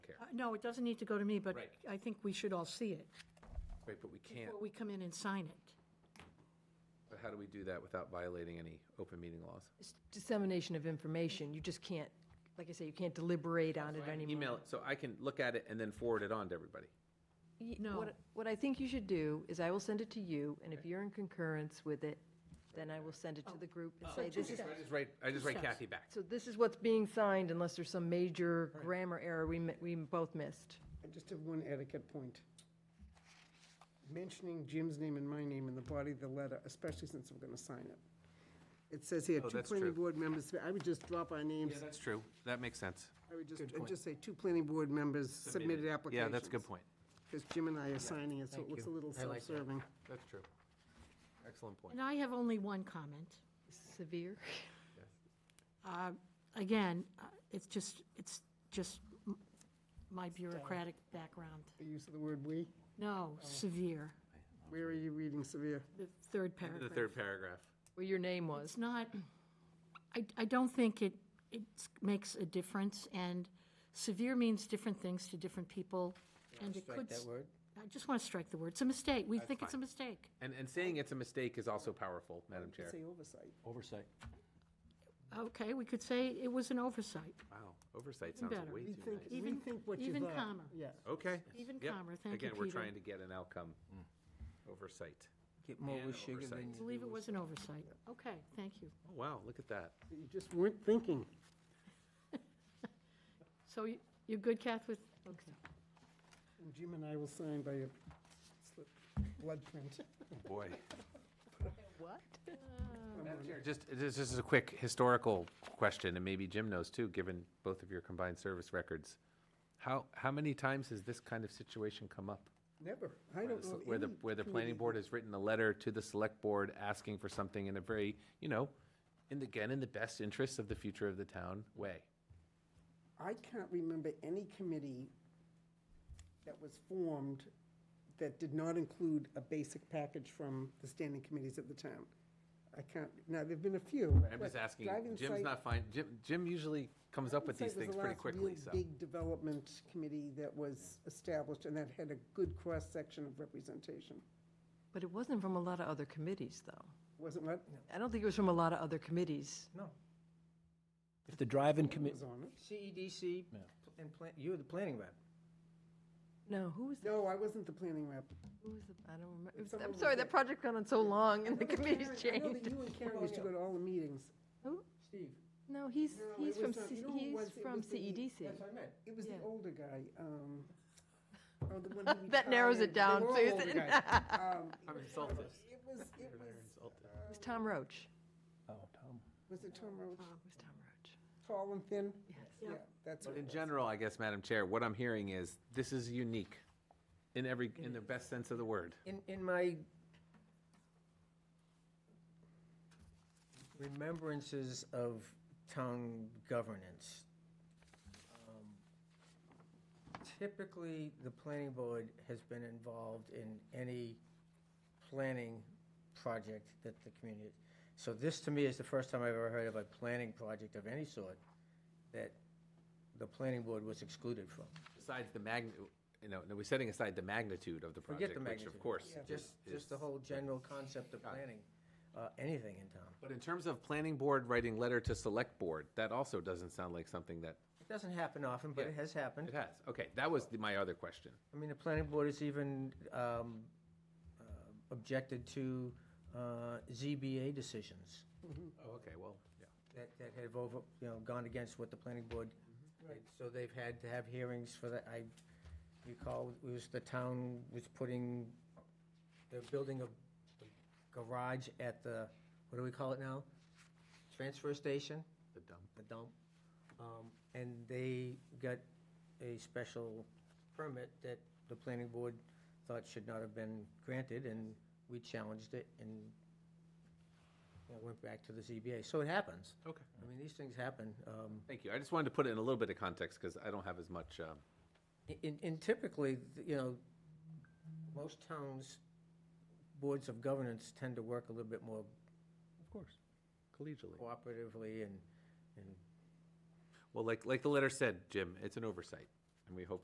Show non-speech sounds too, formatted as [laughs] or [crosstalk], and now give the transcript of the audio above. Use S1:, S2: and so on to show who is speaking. S1: Uh, no, it doesn't need to go to me, but
S2: Right.
S1: I think we should all see it
S2: Right, but we can't,
S1: before we come in and sign it.
S2: but how do we do that without violating any open meeting laws?
S3: It's dissemination of information. You just can't, like I say, you can't deliberate on it anymore.
S2: Email, it so I can look at it and then forward it on to everybody.
S3: Y-
S1: No.
S3: what- What I think you should do is I will send it to you, and if you're in concurrence with it, then I will send it to the group and say, this is,
S2: Oh, I just write, I just write
S1: Steps.
S2: Kathy back.
S3: [laughs] so this is what's being signed unless there's some major grammar error we, mi- we both missed.
S4: I just have one etiquette point. Mentioning Jim's name and my name in the body of the letter, especially since I'm going to sign it. It says here,
S2: Oh,
S4: two
S2: that's
S4: planning
S2: true.
S4: board members, I would just drop our names.
S2: that's true. That makes sense.
S4: I would just, I'd just say, two planning board members submitted applications.
S2: point.
S4: Because Jim and I are signing it, so it looks a little
S2: I like that.
S4: self-serving.
S2: That's true. Excellent point.
S1: And I have only one comment.
S3: Severe? [laughs]
S1: Uh, Again, uh, it's just, it's just m- my bureaucratic background.
S4: The use of the word "we."
S1: No, severe,
S4: Where are you reading severe?
S1: the third
S2: The
S1: paragraph.
S2: third paragraph.
S3: Where your name was.
S1: It's not, I, I don't think it, it makes a difference, and severe means different things to different people, and it could. s-
S5: word?
S1: I just want to strike the word. It's a mistake. We think it's a mistake.
S2: And, and saying it's a mistake is also powerful, Madam Chair.
S4: Say oversight.
S5: Oversight.
S1: Okay, we could say it was an oversight,
S2: Wow, oversight sounds
S1: better.
S2: way too
S4: Rethink,
S2: nice.
S1: Even-
S4: rethink what you
S1: even
S4: got.
S1: calmer.
S4: Yeah.
S2: Okay.
S1: even
S2: Yep.
S1: calmer. Thank you,
S2: Again, we're
S1: Peter.
S2: trying to get an outcome. Oversight.
S5: Get more
S2: And
S5: with sugar
S2: oversight.
S5: than
S1: I
S5: you.
S1: believe it was an oversight. Okay, thank you.
S2: Oh, wow, look at that.
S4: You just weren't thinking.
S1: So you- you're good, Kath, with, okay.
S4: And Jim and I will sign by a slip, blood print.
S2: Boy.
S3: What?
S2: Madam Chair, Just, this is a quick historical question, and maybe Jim knows too, given both of your combined service records. How, how many times has this kind of situation come up?
S4: Never. I
S2: Where
S4: don't
S2: the-
S4: know.
S2: Where the,
S4: any
S2: where the
S4: committee
S2: planning board has written a letter to the select board asking for something in a very, you know, in the, again, in the best interest of the future of the town way.
S4: I can't remember any committee that was formed that did not include a basic package from the standing committees of the town. I can't, now, there've been a few.
S2: I'm just
S4: but
S2: asking,
S4: driving
S2: Jim's
S4: site-
S2: not fine, Jim, Jim usually comes up with
S4: Site
S2: these
S4: was the
S2: things pretty
S4: last real
S2: quickly, so.
S4: Big development committee that was established and that had a good cross-section of representation.
S3: But it wasn't from a lot of other committees, though.
S4: Wasn't what?
S3: I don't think it was from a lot of other committees.
S5: If the drive-in
S4: It
S5: committee,
S4: was on it.
S5: CEDC, E and plan, you were the planning rep.
S3: No, who was, the-
S4: No, I wasn't the planning rep.
S3: who was, the I don't remember. It was-
S4: Someone
S3: I'm
S4: was
S3: sorry,
S4: there.
S3: that project gone on so long, and the committees
S4: I know that
S3: changed.
S4: you and Karen used to go to all the meetings.
S3: Who?
S4: Steve.
S3: No, he's,
S4: No, it
S3: he's
S4: was
S3: from,
S4: not-
S3: C-
S4: you know who it was?
S3: he's
S4: It
S3: from E
S4: was the- E
S3: CEDC.
S5: That's what I meant.
S4: It was the
S3: Yeah.
S4: older guy. um,
S3: [laughs]
S4: oh, the one who
S3: That narrows it
S4: retired. They
S3: down,
S4: were all
S3: Susan.
S4: older guys.
S3: [laughs]
S4: Um,
S2: I'm insulted.
S4: It was, it was,
S3: It was Tom Roach.
S5: Oh, Tom.
S4: was it Tom Roach?
S3: It was Tom Roach.
S4: Tall and thin?
S3: Yes.
S4: Yeah, that's
S2: But
S4: what
S2: in
S4: it was.
S2: general, I guess, Madam Chair, what I'm hearing is this is unique in every, in the best sense of the word.
S5: In, in my remembrances of town governance, um, typically, the planning board has been involved in any planning project that the community, so this to me is the first time I've ever heard of a planning project of any sort that the planning board was excluded from.
S2: Besides the magni, you know, no, we're setting aside the magnitude of the
S5: Forget
S2: project,
S5: the
S2: which
S5: magnitude.
S2: of course.
S5: Just,
S2: is-
S5: just the whole general concept of planning, uh, anything in town.
S2: But in terms of planning board writing letter to select board, that also doesn't sound like something that,
S5: It doesn't happen often, but it
S2: Yeah.
S5: has happened.
S2: it has. Okay, that was the- my other question.
S5: I mean, the planning board has even um, uh, objected to uh, ZBA decisions
S2: Oh, okay, well, yeah.
S5: that, that have over, you know, gone against what the planning board, so they've had to have hearings for that. I recall it was the town was putting, they're building a garage at the, what do we call it now? Transfer station?
S2: The dump.
S5: the dump. Um, And they got a special permit that the planning board thought should not have been granted, and we challenged it and you know, went back to the ZBA. So it happens.
S2: Okay.
S5: I mean, these things happen. Um,
S2: Thank you. I just wanted to put it in a little bit of context because I don't have as much, um,
S5: And and typically, you know, most towns' boards of governance tend to work a little bit more
S2: of course, collegially.
S5: cooperatively and, and
S2: Well, like, like the letter said, Jim, it's an oversight, and we hope